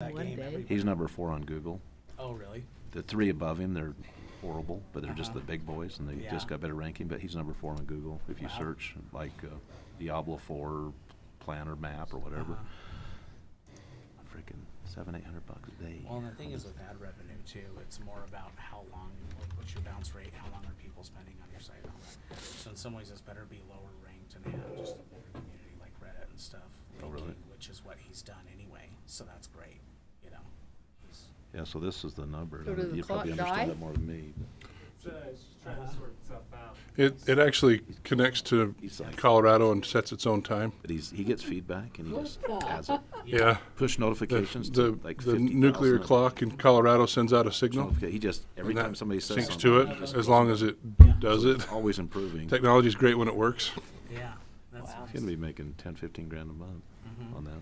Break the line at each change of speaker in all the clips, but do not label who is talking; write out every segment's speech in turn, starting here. that
one
game.
day.
everybody-
He's number four on Google.
Oh, really?
The three above him, they're horrible, but they're just the
Uh-huh.
big boys, and they
Yeah.
just got better ranking. But he's number four on Google. If you
Wow.
search like uh, Diablo Four plan or map or whatever,
Uh-huh.
freaking seven, eight hundred bucks a day.
Well, and the thing is with ad revenue too, it's more about how long, like, what's your bounce rate, how long are people spending on your site and all that. So in some ways, it's better to be lower ranked and have just a bigger community like Reddit and stuff.
Oh, really?
linking, Which is what he's done anyway, so that's great, you know. He's-
Yeah, so this is the number.
So does the
You probably
clock
understand
die?
that more than me. but
So it's just Uh, trying
Uh-huh.
to sort itself out.
It, it actually connects to
He's like-
Colorado and sets its own time.
But he's, he gets feedback and he just adds it.
Yeah.
Push
The,
notifications
the,
to like
the
50,000
nuclear
of them.
clock in Colorado sends out a signal.
Notifica- He just, every
and
time
that
somebody says
Syncs to
something,
it, as long as it does it.
it's always improving. He's
Technology's great when it works,
Yeah, that's.
gonna be making ten, fifteen grand a month
Mm-hmm.
on that.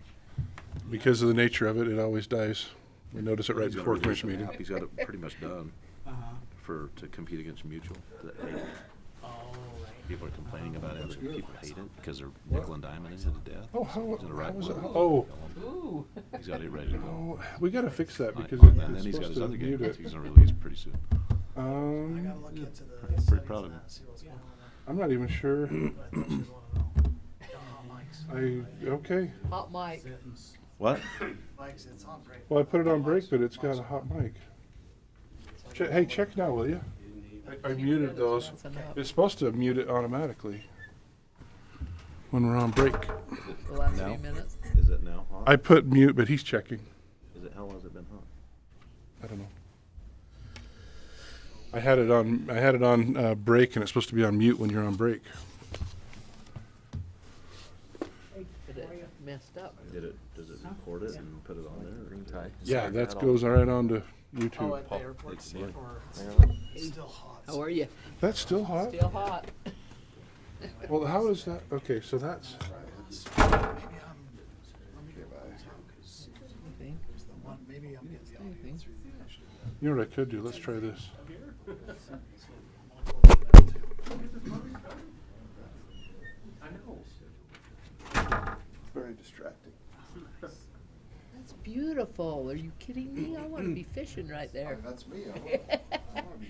because of the nature of it, it always dies. We notice it right
He's gonna
before a
release
commission
an
meeting.
app. He's got it pretty much done
Uh-huh.
for, to compete against mutual. that they-
Oh, right.
People are complaining about it, other people hate it because they're nickel and diming it to death.
Oh, how,
Is it a right
was it?
word?
Oh,
He's got it ready to go.
we gotta fix that
Like,
because
And
it's
then he's got
supposed
his
to
other game
mute
that
it.
he's gonna release pretty soon.
I
Um,
gotta look into the settings
proud of
and
him.
that, see what's going on there,
I'm not even sure.
but I thought you'd wanna know. The hot mics.
I, okay.
Hot mic.
Sentence.
What?
Mics, it's on break.
Well, I put it on break,
Mics,
but it's got
mics.
a hot mic. Che- Hey, check now, will you? I muted those.
That's enough.
It's supposed to mute it automatically when we're on break.
The last
No.
few minutes.
Is it now hot?
I put mute, but he's checking.
Is it, how long has it been hot?
I don't know. I had it on. I had it on uh, break, and it's supposed to be on mute when you're on break.
But it messed up.
Did it, does it record it and put it on there? Green tie.
Yeah, that goes right on to
Oh,
YouTube.
at the airport,
it's like-
or it's still hot.
How are you?
That's still hot.
Still hot.
Well, how is that? Okay, so that's.
Oh.
Maybe I'm, let me go back to, cause
Think.
there's the one, maybe I'm getting the audio
Anything.
through the actual.
You know what I could do? Let's try this.
Very distracting.
That's beautiful. Are you kidding me? I want to be fishing right there.
That's me, I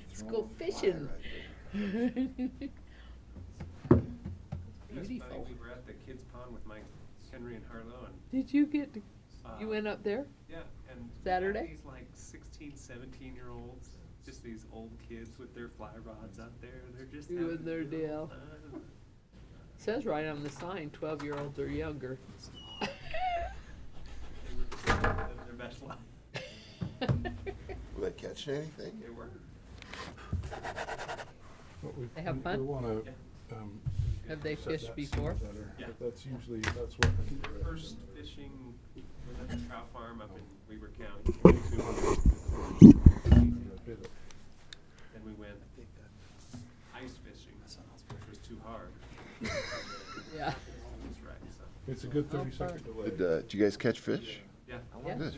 Let's go fishing.
It's funny,
Beautiful.
we were at the kids' pond with Mike Henry and Harlow, and
Did you get, to- you
uh,
went up there?
Yeah, and we had
Saturday?
These like 16, 17 year olds, just these old kids with their fly rods out there. They're just
Doing
having
their
a good
deal.
old time.
Says right on the sign, twelve-year-olds or younger.
They were just living their best life.
Will they catch anything?
They were.
What we-
They have
we-
fun?
We wanna,
Yeah.
um,
Have they
set
fished
that
before?
scene better,
Yeah.
but That's usually, that's what. I think we're at.
First fishing was at the trout farm up in Weaver County. Then we went ice fishing, which was too hard.
Yeah.
That's right. So,
It's a good
How
thirty second
Did,
delay.
uh, did you guys catch fish?
yeah.
Yeah.
Good.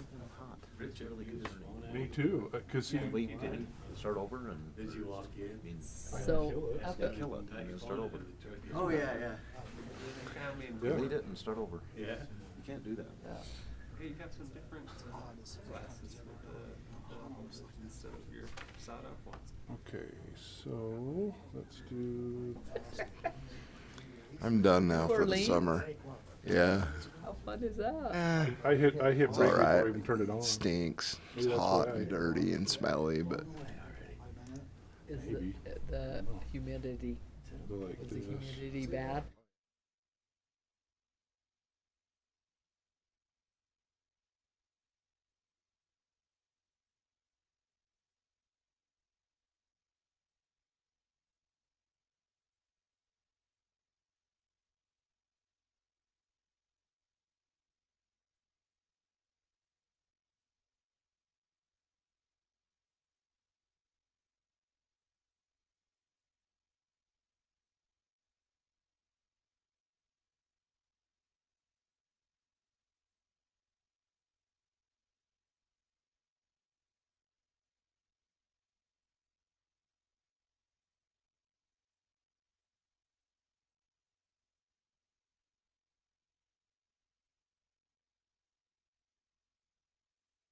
Rich really
Me too, uh, cause he,
We did, start over and. Did you lock in?
So, up at-
Kill it and then start over.
Oh, yeah, yeah.
Yeah.
Delete it and start over.
Yeah.
You can't do that.
Hey, you got some different uh, glasses with the, the holes instead of your sawed-off ones.
okay, so, let's do,
I'm done now for the
Orleans?
summer. Yeah,
how fun is that?
Eh.
I hit, I hit
It's
break
all right.
before I even turned it on.
stinks. It's
Maybe that's
hot
why I-
and dirty and smelly, but
Is the, the humidity,
Go like
is the
this.
humidity bad?